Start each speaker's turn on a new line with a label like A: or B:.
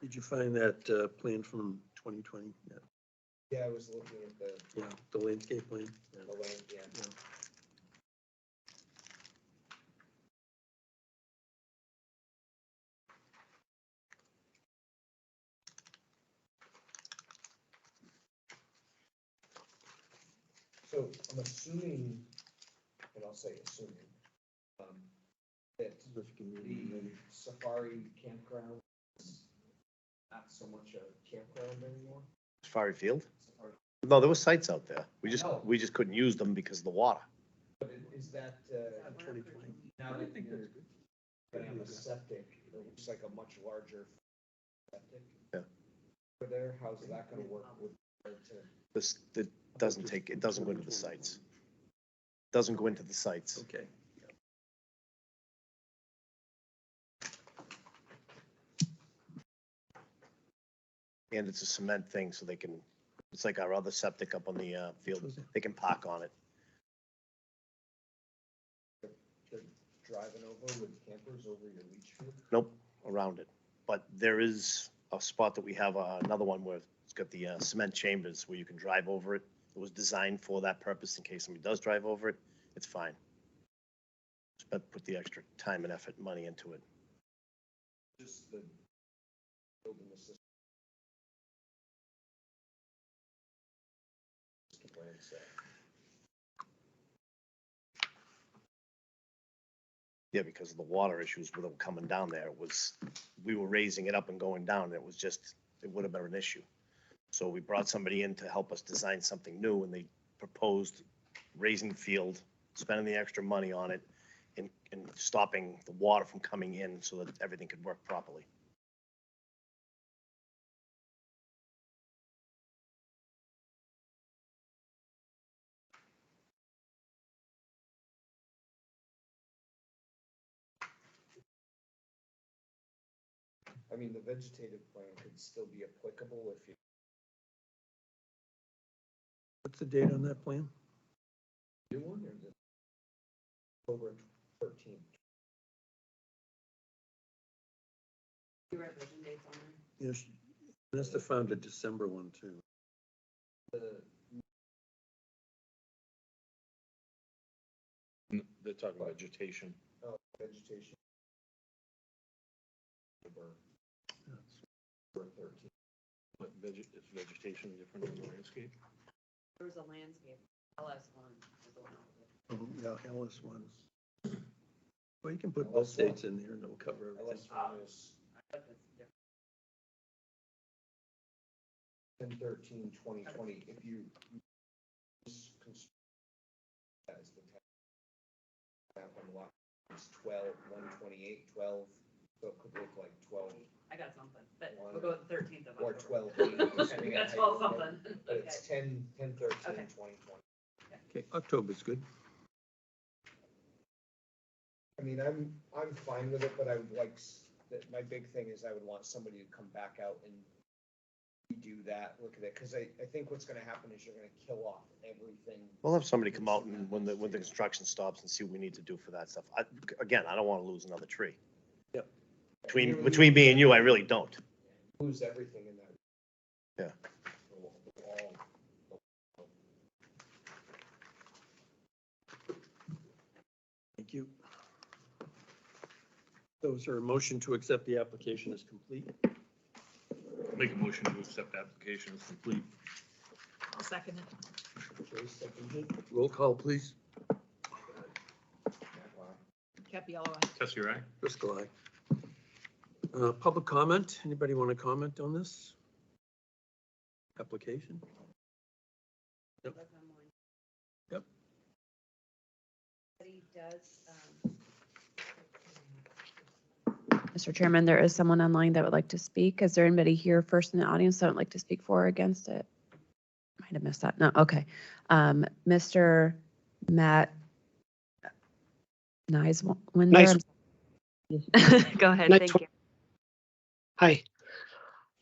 A: Did you find that uh, plan from 2020? Yeah,
B: Yeah, I was looking at the,
A: Yeah, the landscape plan. Yeah.
B: the land, yeah.
A: Yeah.
B: So I'm assuming, and I'll say assuming, um, that the safari campground is not so much a campground anymore.
C: Safari Field?
B: Safari-
C: No, there were sites out there. We just,
B: No.
C: we just couldn't use them because of the water.
B: But i- is that, uh,
A: On 2020.
B: now
A: I
B: that
A: think that's
B: you're
A: good.
B: gonna have a septic, it looks like a much larger septic?
C: Yeah.
B: Over there, how's that gonna work with, regard to,
C: This, it doesn't take, it doesn't go into the sites. Doesn't go into the sites.
A: Okay.
C: And it's a cement thing, so they can, it's like our other septic up on the, uh, field.
A: Okay.
C: They can park on it.
B: to driving over with campers over your leach field?
C: Nope, around it. But there is a spot that we have, uh, another one where it's got the, uh, cement chambers where you can drive over it. It was designed for that purpose in case somebody does drive over it. It's fine. Just about put the extra time and effort, and money into it.
B: Just the building the system. Just the plan set.
C: Yeah, because of the water issues with them coming down there, it was, we were raising it up and going down, it was just, it would have been an issue. So we brought somebody in to help us design something new, and they proposed raising the field, spending the extra money on it, and, and stopping the water from coming in so that everything could work properly.
B: I mean, the vegetative plan could still be applicable if you,
A: What's the date on that plan?
B: you wonder that. Over thirteen.
D: You write vision dates on there?
A: Yes, must have found a December one too.
B: The,
E: They're talking vegetation.
B: oh, vegetation. Over, over thirteen.
E: What veg, is vegetation different than landscape?
D: There was a landscape, LS one was the one I was with.
A: Oh, Yeah, Ellis one. Well, you can put
B: Ellis
A: both
B: one.
A: dates in there and it'll cover everything.
B: Unless one is
D: I thought that's different.
B: ten thirteen twenty twenty, if you. this cons- That is the tax. That one lot is twelve, one twenty-eight, twelve, so it could look like twelve,
D: I got something, but
B: One.
D: we'll go with thirteenth of
B: or
D: October.
B: twelve eight,
D: We
B: depending on
D: got
B: how
D: twelve
B: you look at it.
D: something,
B: But
D: okay.
B: it's ten, ten thirteen
D: Okay.
B: twenty twenty.
A: Okay, October's good.
B: I mean, I'm, I'm fine with it, but I would like, s- that, my big thing is I would want somebody to come back out and redo that, look at it, because I, I think what's gonna happen is you're gonna kill off everything.
C: We'll have somebody come out and when the, when the construction stops and see what we need to do for that stuff. I, again, I don't wanna lose another tree.
A: Yep.
C: Between, between me and you, I really don't.
B: Lose everything in that.
C: Yeah.
B: The wa- the wall.
A: Thank you. Those are a motion to accept the application as complete.
E: Make a motion to accept application as complete.
F: I'll second it.
A: Joyce, seconded. Roll call, please.
B: Wow.
F: Capiella.
E: Tessie, right?
A: Driscoll, aye. Uh, Public comment? Anybody want to comment on this? Application? Yep.
D: That's online.
A: Yep.
D: But he does, um. Mr. Chairman, there is someone online that would like to speak. Is there anybody here first in the audience that would like to speak for or against it? Might have missed that. No, okay. Um, Mr. Matt Nice.
G: Nice.
D: Go ahead,
G: Nice
D: thank
G: one.
D: you.
G: Hi,